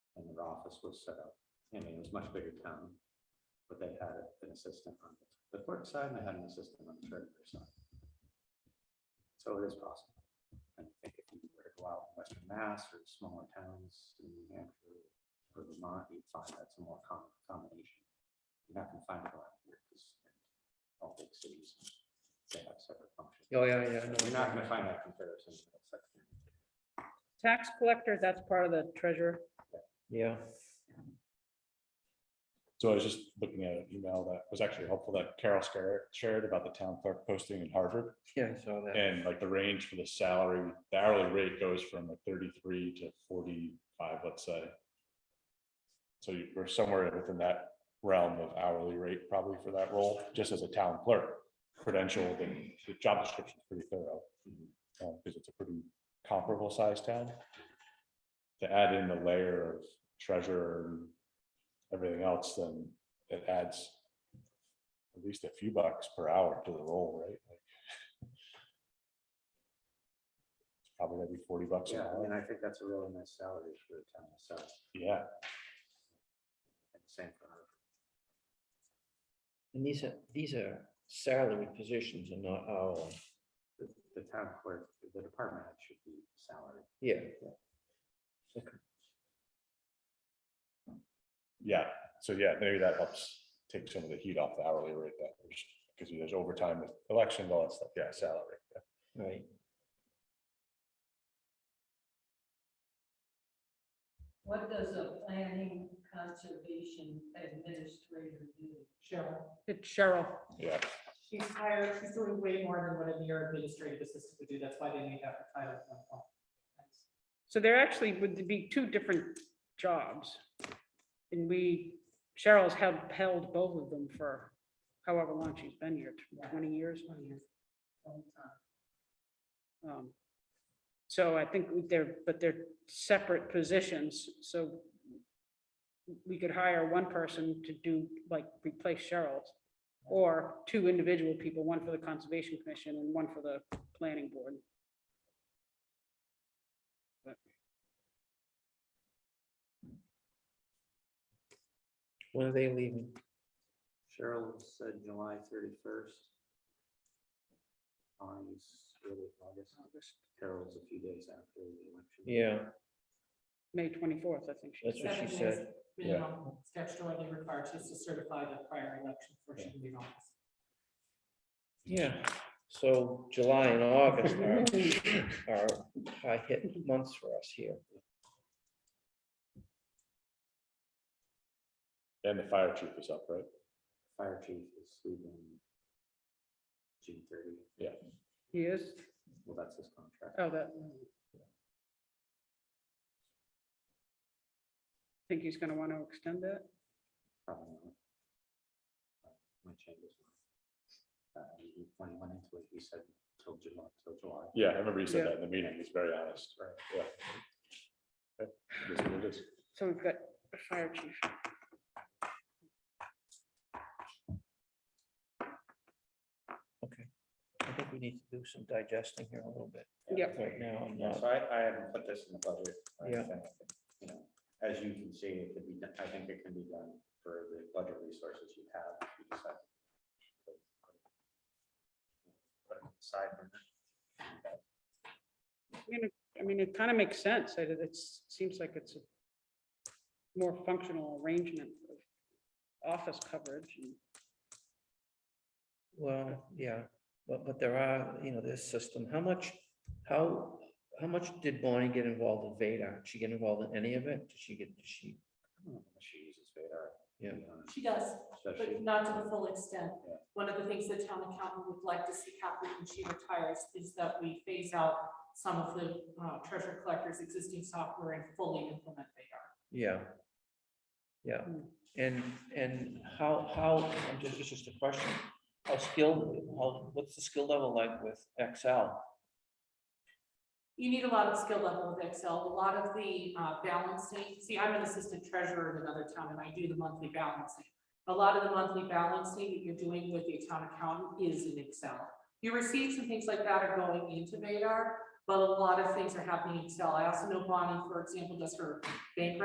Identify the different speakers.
Speaker 1: office was set up. I mean, it was much bigger town, but they had an assistant on the clerk side and they had an assistant on the treasurer side. So it is possible. And I think if you were to go out in Western Mass or smaller towns in New Hampshire or Vermont, you'd find that's a more common combination. You're not gonna find it around here because all big cities, they have separate functions.
Speaker 2: Oh, yeah, yeah. no,
Speaker 1: You're not gonna find that comparison. in that section.
Speaker 3: Tax collector, that's part of the treasurer.
Speaker 2: Yeah,
Speaker 4: So I was just looking at an email that was actually helpful that Carol Scar- shared about the town clerk posting in Harvard.
Speaker 2: yeah, I saw that.
Speaker 4: And like the range for the salary, the hourly rate goes from like thirty-three to forty-five, let's say. So you- we're somewhere within that realm of hourly rate probably for that role, just as a town clerk. Credential, the the job description is pretty thorough. uh, Because it's a pretty comparable sized town. To add in the layer of treasurer and everything else, then it adds at least a few bucks per hour to the role, right? Like, it's Probably gonna be forty bucks an
Speaker 1: Yeah, I
Speaker 4: hour.
Speaker 1: mean, I think that's a really nice salary for the town itself.
Speaker 4: Yeah.
Speaker 1: And same for her.
Speaker 2: And these are, these are salary positions and not hourly.
Speaker 1: The, the town clerk, the department head should be salary.
Speaker 2: Yeah,
Speaker 4: Yeah, so yeah, maybe that helps take some of the heat off the hourly rate that, because there's overtime with elections, all that stuff, yeah, salary. yeah.
Speaker 2: right.
Speaker 5: What does a planning conservation administrator do?
Speaker 6: Cheryl.
Speaker 3: It's Cheryl.
Speaker 4: Yeah,
Speaker 6: She's hired, she's doing way more than what a mere administrative assistant would do. That's why they need that title.
Speaker 3: So there actually would be two different jobs. And we, Cheryl's held, held both of them for however long she's been here, tw- twenty years. Um, So I think they're, but they're separate positions, so we could hire one person to do, like, replace Cheryl's, or two individual people, one for the Conservation Commission and one for the Planning Board.
Speaker 2: When are they leaving?
Speaker 1: Cheryl said July thirty-first. Bonnie's really August, August. Carol's a few days after the election.
Speaker 2: Yeah,
Speaker 3: May twenty-fourth, I think. she
Speaker 2: That's
Speaker 3: said.
Speaker 2: what she said.
Speaker 6: Minimum statutorily required. She's to certify the prior election before she can leave office.
Speaker 2: yeah. So July and August are, are high hit months for us here.
Speaker 4: and the fire chief is up, right?
Speaker 1: Fire chief is leaving June thirty.
Speaker 3: He is?
Speaker 1: Well, that's his contract.
Speaker 3: Oh, that. Think he's gonna want to extend that?
Speaker 1: Probably not. Uh, Might change his mind. Uh, he- When he went into it, he said till July, till July.
Speaker 4: Yeah, I remember you said
Speaker 3: Yeah.
Speaker 4: that in the meeting, he's very honest,
Speaker 1: Right.
Speaker 4: yeah. Okay, it is what it is.
Speaker 3: So we've got the fire chief.
Speaker 2: I think we need to do some digesting here a little bit.
Speaker 3: Yep.
Speaker 2: Right now, and
Speaker 1: Yeah,
Speaker 2: not
Speaker 1: so I, I haven't put this in the budget. or
Speaker 2: Yeah.
Speaker 1: anything, You know, as you can see, it could be, done- I think it can be done for the budget resources you have, if you decide. to Put it aside for now.
Speaker 3: I mean, it- I mean, it kind of makes sense. It, it seems like it's a more functional arrangement of office coverage and
Speaker 2: Well, yeah, but, but there are, you know, this system, how much, how, how much did Bonnie get involved in Vadar? Did she get involved in any of it? Did she get, did she,
Speaker 1: I don't know if She uses Vadar.
Speaker 2: Yeah.
Speaker 6: She does, but
Speaker 1: uh, Especially,
Speaker 6: not to the full extent.
Speaker 1: Yeah.
Speaker 6: One of the things the town accountant would like to see happen when she retires is that we phase out some of the uh, treasure collector's existing software and fully implement VEDAR.
Speaker 2: yeah. Yeah,
Speaker 3: Hmm.
Speaker 2: and, and how, how, I'm just, it's just a question, how skilled, how, what's the skill level like with Excel?
Speaker 6: You need a lot of skill level with Excel, a lot of the uh, balancing, see, I'm an assistant treasurer in another town and I do the monthly balancing. A lot of the monthly balancing that you're doing with the town accountant is in Excel. Your receipts and things like that are going into Vadar, but a lot of things are happening in Excel. I also know Bonnie, for example, does her bank